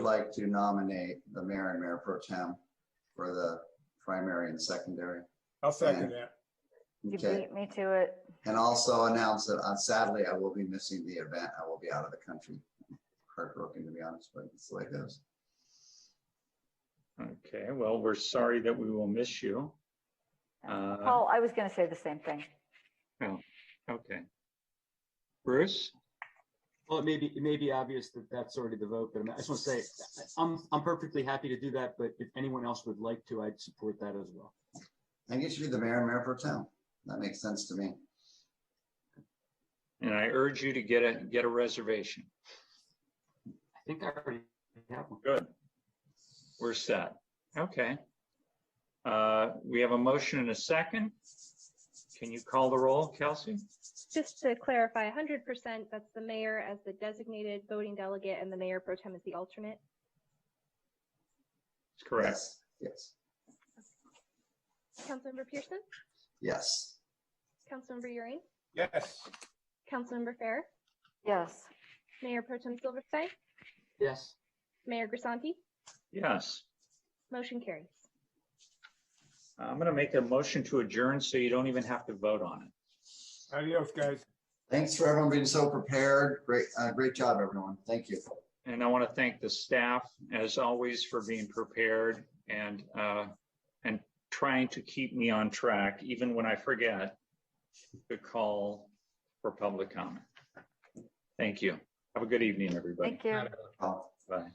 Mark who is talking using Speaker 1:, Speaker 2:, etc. Speaker 1: like to nominate the mayor and mayor pro tem for the primary and secondary.
Speaker 2: I'll second that.
Speaker 3: You
Speaker 1: Okay,
Speaker 3: beat me to it.
Speaker 1: and also announce that uh, sadly I will be missing the event. I will be out of the country. Heartbroken, to be honest, but it's the way it goes.
Speaker 4: Okay, well, we're sorry that we will miss you. Uh,
Speaker 3: Paul, I was going to say the same thing.
Speaker 4: Okay. Bruce?
Speaker 5: Well, it may be, it may be obvious that that's already the vote, but I just want to say, I'm, I'm perfectly happy to do that, but if anyone else would like to, I'd support that as well.
Speaker 1: I think it should be the mayor and mayor pro tem. That makes sense to me.
Speaker 4: And I urge you to get a, get a reservation.
Speaker 5: I think I already have one.
Speaker 4: Good. We're set. Okay. Uh, We have a motion and a second. Can you call the roll, Kelsey?
Speaker 6: Just to clarify, hundred percent, that's the mayor as the designated voting delegate and the mayor pro tem is the alternate.
Speaker 4: That's correct.
Speaker 1: Yes, Yes,
Speaker 6: Councilmember Pearson,
Speaker 1: yes.
Speaker 6: Councilmember Euring,
Speaker 2: Yes,
Speaker 6: Councilmember Fair,
Speaker 3: Yes.
Speaker 6: Mayor pro tem Silverstein,
Speaker 5: Yes,
Speaker 6: Mayor Grisanti,
Speaker 4: Yes.
Speaker 6: motion carries.
Speaker 4: I'm going to make a motion to adjourn so you don't even have to vote on it.
Speaker 2: adios, guys.
Speaker 1: Thanks for everyone being so prepared. Great, uh, great job, everyone. Thank you.
Speaker 4: And I want to thank the staff, as always, for being prepared and, uh, and trying to keep me on track, even when I forget to call for public comment. Thank you. Have a good evening, everybody.
Speaker 3: Thank you.
Speaker 1: Oh.
Speaker 4: Bye.